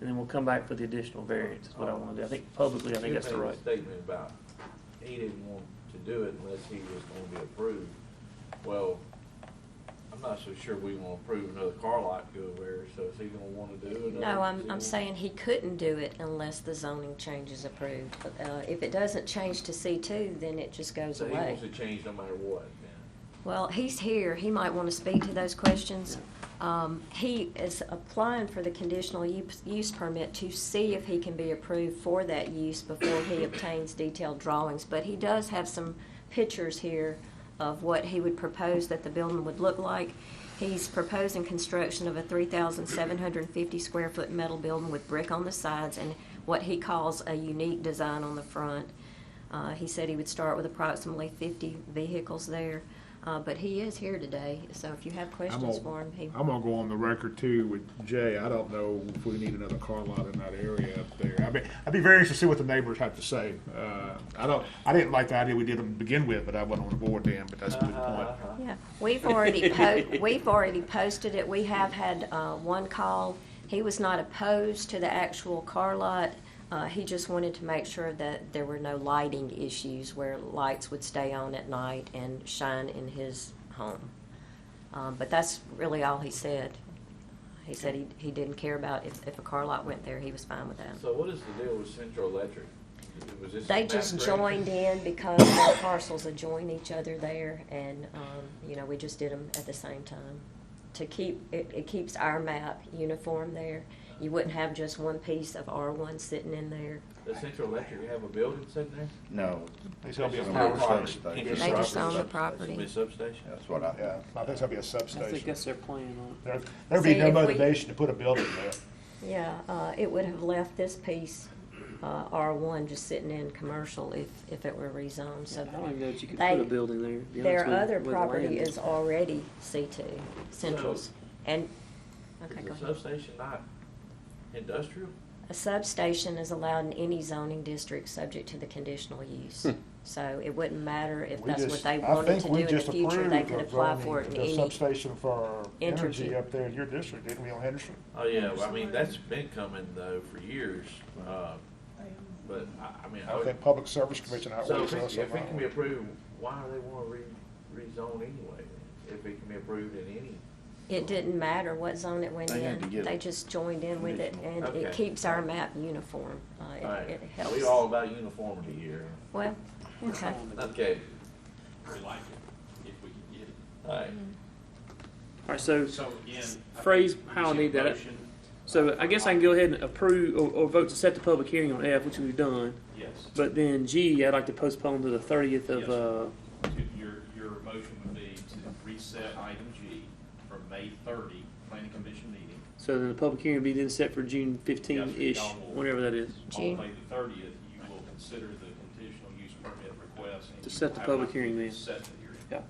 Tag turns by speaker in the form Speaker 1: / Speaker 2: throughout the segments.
Speaker 1: and then we'll come back for the additional variance, is what I wanna do. I think publicly, I think that's the right.
Speaker 2: He made a statement about he didn't want to do it unless he was gonna be approved. Well, I'm not so sure we wanna approve another car lot to go there, so is he gonna wanna do another?
Speaker 3: No,
Speaker 2: is
Speaker 3: I'm,
Speaker 2: he
Speaker 3: I'm
Speaker 2: gonna-
Speaker 3: saying he couldn't do it unless the zoning change is approved. Uh, If it doesn't change to C2, then it just goes
Speaker 2: So he wants to
Speaker 3: away.
Speaker 2: change no matter what, then?
Speaker 3: Well, he's here, he might want to speak to those questions. Um, He is applying for the conditional u- use permit to see if he can be approved for that use before he obtains detailed drawings. But he does have some pictures here of what he would propose that the building would look like. He's proposing construction of a 3,750 square foot metal building with brick on the sides and what he calls a unique design on the front. Uh, He said he would start with approximately 50 vehicles there, Uh, but he is here today, so if you have
Speaker 4: I'm
Speaker 3: questions for him, he...
Speaker 4: gonna, I'm gonna go on the record too with Jay. I don't know if we need another car lot in that area up there. I mean, I'd be very interested to see what the neighbors have to say. Uh, I don't, I didn't like the idea we did them to begin with, but I wasn't on the board then, but that's a good point.
Speaker 3: Yeah, we've already, po- we've already posted it. We have had uh, one call. He was not opposed to the actual car lot. Uh, He just wanted to make sure that there were no lighting issues where lights would stay on at night and shine in his home. Um, But that's really all he said. He said he, he didn't care about if, if a car lot went there, he was fine with that.
Speaker 2: So what is the deal with Central Electric? Was this?
Speaker 3: They
Speaker 2: a
Speaker 3: just
Speaker 2: map
Speaker 3: joined
Speaker 2: correction?
Speaker 3: in because the parcels adjoin each other there, and, um, you know, we just did them at the same time. To keep, it, it keeps our map uniform there. You wouldn't have just one piece of R one sitting in there.
Speaker 2: Does Central Electric have a building sitting there?
Speaker 5: No,
Speaker 4: They said it'll be a
Speaker 2: Power
Speaker 4: power
Speaker 2: property.
Speaker 4: station.
Speaker 5: They
Speaker 3: They just own the property.
Speaker 2: It's a substation?
Speaker 5: that's what I, yeah.
Speaker 4: Uh, I think that'll be a
Speaker 6: I think
Speaker 4: substation.
Speaker 6: that's their plan on it.
Speaker 4: There, there'd be
Speaker 3: See,
Speaker 4: no
Speaker 3: if we-
Speaker 4: motivation to put a building there.
Speaker 3: Yeah, uh, it would have left this piece, uh, R one just sitting in commercial if, if it were rezoned, so.
Speaker 6: I don't even know that you could
Speaker 3: they-
Speaker 6: put a building there. to be
Speaker 3: Their
Speaker 6: honest with-
Speaker 3: other
Speaker 6: with land.
Speaker 3: property is already C two, Central's, and, okay,
Speaker 2: Is
Speaker 3: go
Speaker 2: the
Speaker 3: ahead.
Speaker 2: substation not industrial?
Speaker 3: A substation is allowed in any zoning district subject to the conditional use.
Speaker 2: Hmm.
Speaker 3: So it wouldn't matter if
Speaker 4: We
Speaker 3: that's what
Speaker 4: just-
Speaker 3: they
Speaker 4: I
Speaker 3: wanted
Speaker 4: think
Speaker 3: to do
Speaker 4: we
Speaker 3: in the
Speaker 4: just
Speaker 3: future, they
Speaker 4: approved
Speaker 3: could
Speaker 4: of
Speaker 3: apply
Speaker 4: zoning
Speaker 3: for it in
Speaker 4: the
Speaker 3: any.
Speaker 4: Substation for
Speaker 3: energy.
Speaker 4: energy up there in your district, didn't we, on Henderson?
Speaker 2: Oh, yeah, well, I mean, that's been coming though for years, uh, but I, I mean, I
Speaker 4: I
Speaker 2: would.
Speaker 4: think Public Service Commission
Speaker 2: So
Speaker 4: outweighs
Speaker 2: if
Speaker 4: us.
Speaker 2: it, if it
Speaker 4: somehow.
Speaker 2: can be approved, why do they wanna re, rezone anyway, if it can be approved in any?
Speaker 3: It didn't matter what zone it went
Speaker 5: They had to
Speaker 3: in,
Speaker 5: get
Speaker 3: they just joined in with it and
Speaker 5: conditional.
Speaker 3: it
Speaker 2: Okay.
Speaker 3: keeps our map uniform. Uh, it-
Speaker 2: Alright,
Speaker 3: It helps.
Speaker 2: We all about uniformity here.
Speaker 3: Well, okay.
Speaker 2: Okay,
Speaker 7: we like it, if we can get it.
Speaker 2: alright,
Speaker 3: Mm-hmm.
Speaker 6: All right, so,
Speaker 7: So again. I
Speaker 6: Phrase
Speaker 7: think we
Speaker 6: how I
Speaker 7: should
Speaker 6: need that.
Speaker 7: motion,
Speaker 6: so I guess I can go ahead and approve or, or vote to set the public hearing on F, which we've done.
Speaker 7: Yes,
Speaker 6: But then G, I'd like to postpone to the thirtieth
Speaker 7: Yes.
Speaker 6: of, uh,
Speaker 7: To- your, your motion would be to reset item G from May thirty, planning commission meeting.
Speaker 6: so then the public hearing would be then set for June fifteen-ish,
Speaker 7: Yes, y'all will-
Speaker 6: whenever that is.
Speaker 3: June.
Speaker 7: On May the thirtieth, you will consider the conditional use permit request. and
Speaker 6: To
Speaker 7: you
Speaker 6: set
Speaker 7: will
Speaker 6: the
Speaker 7: have
Speaker 6: public
Speaker 7: to
Speaker 6: hearing then.
Speaker 7: Set the hearing.
Speaker 6: Yeah.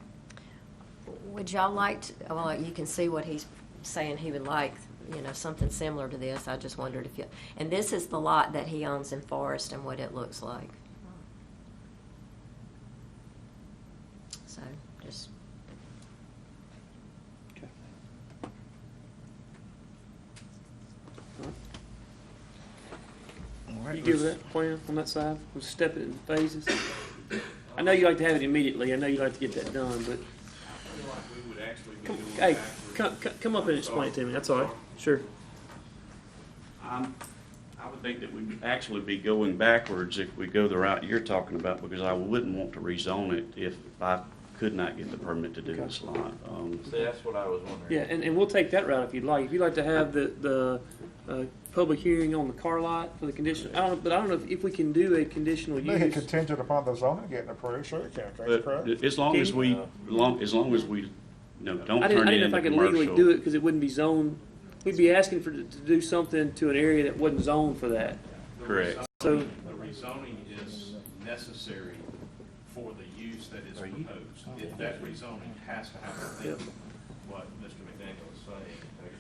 Speaker 3: Would y'all like, to- well, you can see what he's saying he would like, you know, something similar to this. I just wondered if you, and this is the lot that he owns in Forest and what it looks like. So, just,
Speaker 6: Okay. All right. You give that plan on that side? We'll step it in phases. I know you like to have it immediately. I know you like to get that done, but
Speaker 7: I feel like we would actually be
Speaker 6: Come,
Speaker 7: doing
Speaker 6: hey,
Speaker 7: backwards.
Speaker 6: come, come- come up and explain it to me. That's all right. Sure.
Speaker 8: I'm, I would think that we'd actually be going backwards if we go the route you're talking about, because I wouldn't want to rezone it if I could not get the permit to do
Speaker 6: Okay.
Speaker 8: this lot. Um,
Speaker 2: see, that's what I was wondering.
Speaker 6: Yeah, and, and we'll take that route if you'd like. If you'd like to have the, the, uh, public hearing on the car lot for the condition, I don't, but I don't know if- if we can do a conditional
Speaker 4: Make it
Speaker 6: use.
Speaker 4: contingent upon the zoning getting approved, sure it can,
Speaker 8: But
Speaker 4: can't correct?
Speaker 8: as long as we,
Speaker 2: Yeah.
Speaker 8: long, as long as we, you know, don't
Speaker 6: I didn't,
Speaker 8: turn
Speaker 6: I
Speaker 8: it
Speaker 6: didn't know
Speaker 8: into
Speaker 6: if I could legally do
Speaker 8: commercial.
Speaker 6: it because it wouldn't be zoned. We'd be asking for, to do something to an area that wasn't zoned for that.
Speaker 7: The
Speaker 8: Correct.
Speaker 7: rezoning-
Speaker 6: So-
Speaker 7: The rezoning is necessary for the use that is proposed. If that rezoning has to happen, then what Mr. McDaniel is saying,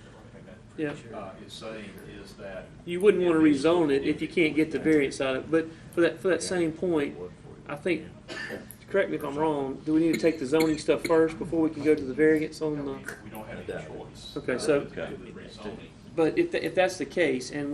Speaker 6: Yeah.
Speaker 7: uh, is saying is that
Speaker 6: You wouldn't want to rezone it if you can't get the variance out of it. But for that, for that same point, I think, correct me if I'm wrong, do we need to take the zoning stuff first before we can go to the variance on the?
Speaker 7: we don't have any choice.
Speaker 6: Okay, so,
Speaker 7: Do the rezoning.
Speaker 6: but if, tha- if that's the case, and